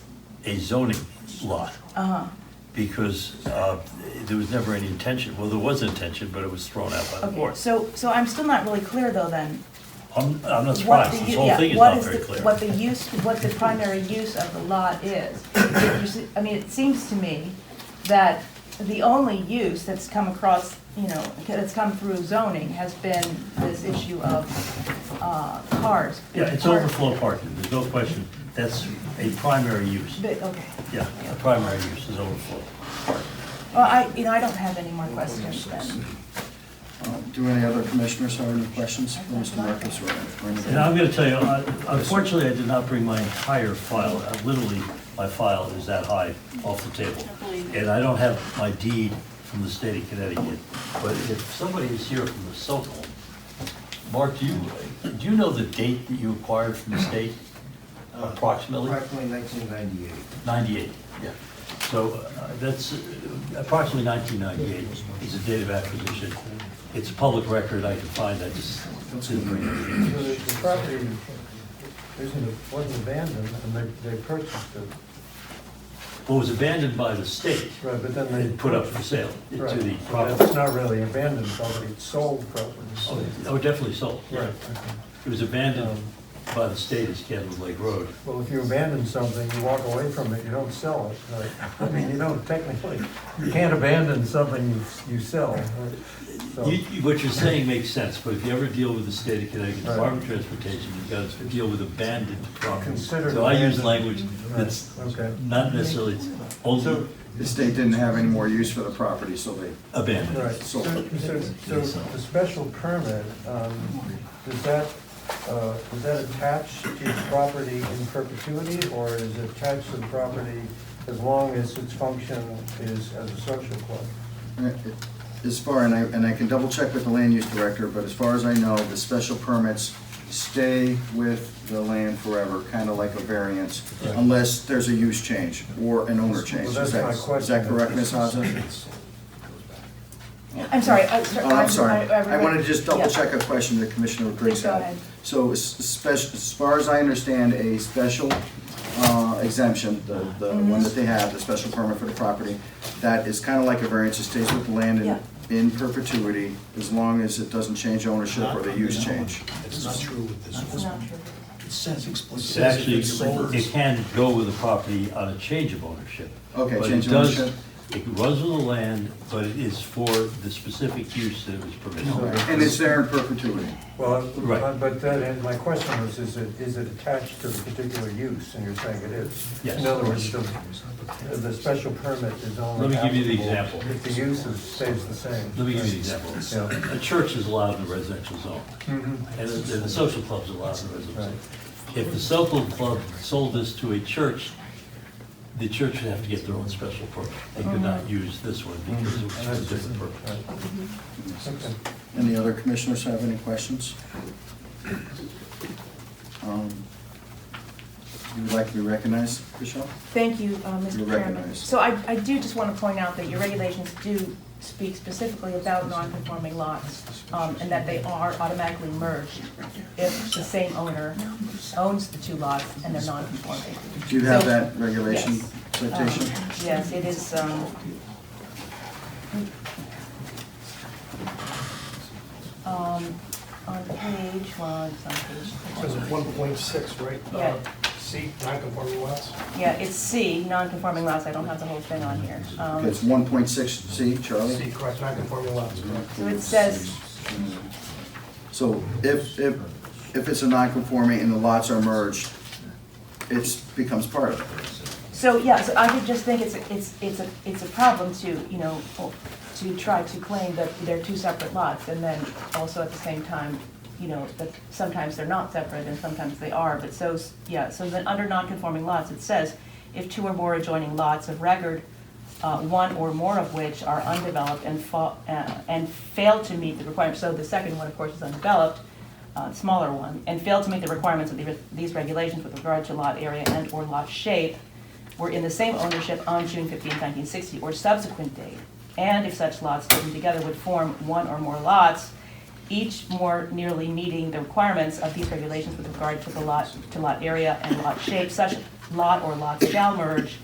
a zoning lot. Uh-huh. Because uh, there was never any intention, well, there was intention, but it was thrown out by the Okay, board. so, so I'm still not really clear though then. I'm, I'm not what the surprised, u- this whole yeah, thing is what not the- very clear. What the use, what the primary use of the lot is. If you see- I mean, it seems to me that the only use that's come across, you know, that's come through zoning has been this issue of uh, cars. Yeah, it's overflow parking, there's no question, that's a primary use. But, okay, Yeah, a primary use is overflow. well, I, you know, I don't have any more questions then. Uh, Do any other commissioners have any questions for Mr. Marcus or or anything? And I'm gonna tell you, I- unfortunately, I did not bring my entire file, Uh, literally, my file is that high off the table. And I don't have my deed from the state of Connecticut, but if somebody is here from the Socal, Mark, do you, do you know the date that you acquired from the state approximately? Approximately 1998. Ninety-eight, yeah. So uh, that's uh, approximately nineteen ninety-eight is the date of acquisition. It's a public record, I can find, I just didn't bring it. So The the property isn't, wasn't abandoned, and they, they purchased it, What was abandoned by the state right, but then they. and put up for sale to Right, the but It's property. not really abandoned property, it's sold property. Oh, oh, definitely sold. Right, okay. It was abandoned by the state as Cannon Lake Road. Well, if you abandon something, you walk away from it, you don't sell it, right? I mean, you don't technically, you can't abandon something you, you sell, right? So- You, you- what you're saying makes sense, but if you ever deal with the state of Connecticut Right. Department of Transportation, you've got to deal with abandoned property. Considered So I use abandoned. language that's Right, okay. not necessarily only The state didn't have any more use for the property, so they, Right, abandoned. so, so, so the special permit, um, does that, uh, is that attached to property in perpetuity, or is it attached to the property as long as its function is as a social club? as far, and I, and I can double check with the land use director, but as far as I know, the special permits stay with the land forever, kind of like a variance, Right. unless there's a use change or an owner change. Well, that's Is that- my Is that question. correct, Ms. Haza? I'm sorry. I- Oh, I'm sorry. I- I- I wanted to just double yeah. check a question that Commissioner Briggs Please go had. ahead. So as spec- as far as I understand, a special uh, exemption, the the Mm-hmm. one that they have, the special permit for the property, that is kind of like a variance, it stays with the land Yeah. in- in perpetuity as long as it doesn't change ownership or the use change. That's not true with this It's one. not true. It says It's explicitly. Actually, it's sold. it can go with the property on a change of ownership. Okay, But it change of does- ownership. It runs with the land, but it is for the specific use that it was permitted. And it's there in perpetuity. Well, uh, Right. Uh, but then, and my question was, is it, is it attached to the particular use, and you're saying it is? Yes. In other words, the, the special permit is only Let me give you the applicable example. If the use is, stays the same. Let me give you an example. Yeah. A church is allowed in the residential zone, Mhm. and the and the social club's allowed in the residential. zone. If the social club sold this to a church, the church would have to get their own special permit. They could Oh. not use this one because it was for a different purpose. Okay. Any other commissioners have any questions? Um, You would like to be recognized, Michelle? Thank you, uh, Mr. You're Chairman. recognized. So I, I do just want to point out that your regulations do speak specifically about non-conforming lots, um, and that they are automatically merged if the same owner owns the two lots and they're non-conforming. Do you have So- that regulation Yes. citation? Um, Yes, it is, um, um, on page, well, it's on page. Says one point six, right? Uh, Yeah. C, non-conforming lots. Yeah, it's C, non-conforming lots, I don't have the whole thing on here. Um, It's one point six C, C, Charlie? correct, non-conforming lots, correct. So it says, So if, if, if it's a non-conforming and the lots are merged, it becomes part of it. so, yeah, so I would just think it's, it's, it's a, it's a problem to, you know, to try to claim that they're two separate lots, and then also at the same time, you know, that sometimes they're not separate and sometimes they are, but so, yeah, so then under non-conforming lots, it says, if two or more adjoining lots of record, uh, one or more of which are undeveloped and fa, uh, and fail to meet the requirements, so the second one, of course, is undeveloped, uh, smaller one, and fail to meet the requirements of the- these regulations with regard to lot area and/or lot shape, were in the same ownership on June 15, 1960, or subsequent date, and if such lots taken together would form one or more lots, each more nearly meeting the requirements of these regulations with regard to the lot, to lot area and lot shape, such lot or lots shall merge